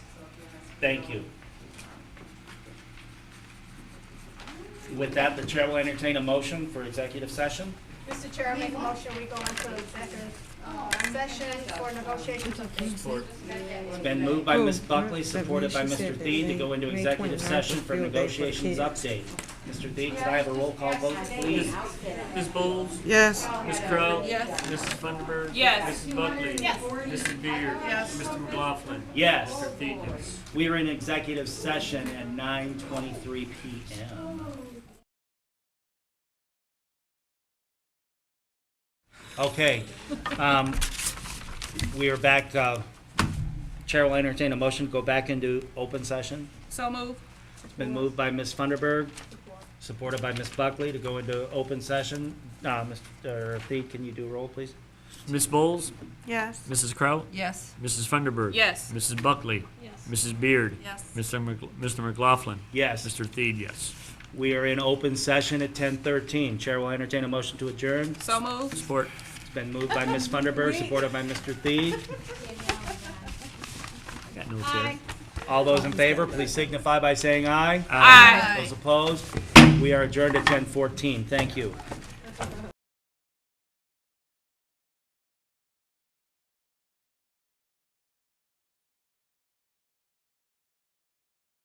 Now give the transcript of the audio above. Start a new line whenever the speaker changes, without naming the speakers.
Thank you. With that, the chair will entertain a motion for executive session.
Mr. Chair, I make a motion, we go into executive uh, session for negotiations of peace.
It's been moved by Ms. Buckley, supported by Mr. Thede, to go into executive session for negotiations update. Mr. Thede, could I have a roll call vote, please?
Ms. Bowles,
Yes.
Ms. Crowe, Mrs. Funderburg,
Yes.
Mrs. Buckley, Mrs. Beer, Mr. McLaughlin,
Yes,
Mr. Thedis.
we are in executive session at 9:23 PM. Okay, um, we are back. uh, Chair will entertain a motion to go back into open session.
So move.
Been moved by Ms. Funderburg, supported by Ms. Buckley to go into open session. Uh, Mr. Thied, can you do a roll, please?
Ms. Bowles,
Yes.
Mrs. Crowe,
Yes.
Mrs. Funderburg.
Yes.
Mrs. Buckley,
Yes.
Mrs. Beard,
Yes.
Mr. Mc- Mr. McLaughlin,
Yes,
Mr. Thede, yes.
we are in open session at ten thirteen. Chair will entertain a motion to adjourn.
So move.
Support.
It's been moved by Ms. Funderburg, supported by Mr. Thied.
Got no chair.
All those in favor, please signify by saying aye.
Aye.
Those opposed, we are adjourned at ten fourteen. Thank you.